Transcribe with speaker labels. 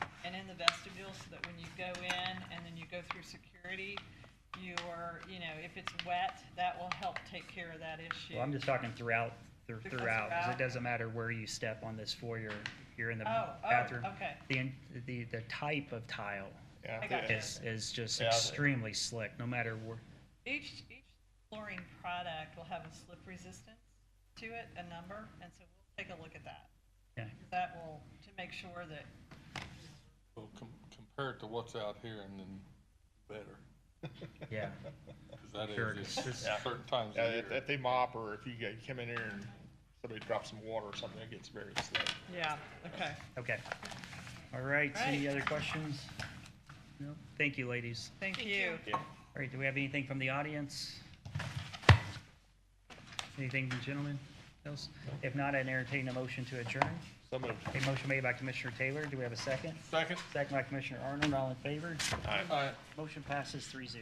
Speaker 1: so that when you go in and then you go through security, you are, you know, if it's wet, that will help take care of that issue.
Speaker 2: Well, I'm just talking throughout, thr-
Speaker 1: Just
Speaker 2: throughout, because
Speaker 1: throughout.
Speaker 2: it doesn't matter where you step on this foyer, you're in the
Speaker 1: Oh, oh,
Speaker 2: bathroom.
Speaker 1: okay.
Speaker 2: The, in- the, the type of tile
Speaker 3: Yeah,
Speaker 1: I
Speaker 3: I
Speaker 1: got
Speaker 3: think-
Speaker 1: you.
Speaker 2: is, is just
Speaker 3: Yeah.
Speaker 2: extremely slick, no matter where.
Speaker 1: Each, each flooring product will have a slip resistance to it, a number, and so we'll take a look at that.
Speaker 2: yeah.
Speaker 1: That will, to make sure that,
Speaker 4: Well, com- compare it to what's out here and then better,
Speaker 2: Yeah,
Speaker 4: because that
Speaker 2: Sure,
Speaker 4: is,
Speaker 2: it's-
Speaker 4: it's
Speaker 3: Yeah.
Speaker 4: certain times
Speaker 3: Yeah,
Speaker 4: of year.
Speaker 3: if, if they mop or if you guys come in here and somebody drops some water or something, it gets very slick.
Speaker 1: yeah, okay.
Speaker 2: okay. All right, any
Speaker 1: Right.
Speaker 2: other questions? No? Thank you, ladies.
Speaker 1: Thank you.
Speaker 3: Yeah.
Speaker 2: All right, do we have anything from the audience? Anything, gentlemen, else? If not, I entertain a motion to adjourn.
Speaker 3: So moved.
Speaker 2: A motion made by Commissioner Taylor, do we have a second?
Speaker 4: Second?
Speaker 2: Second by Commissioner Arnold, all in favor?
Speaker 3: All right.
Speaker 4: All right.
Speaker 2: Motion passes three zero.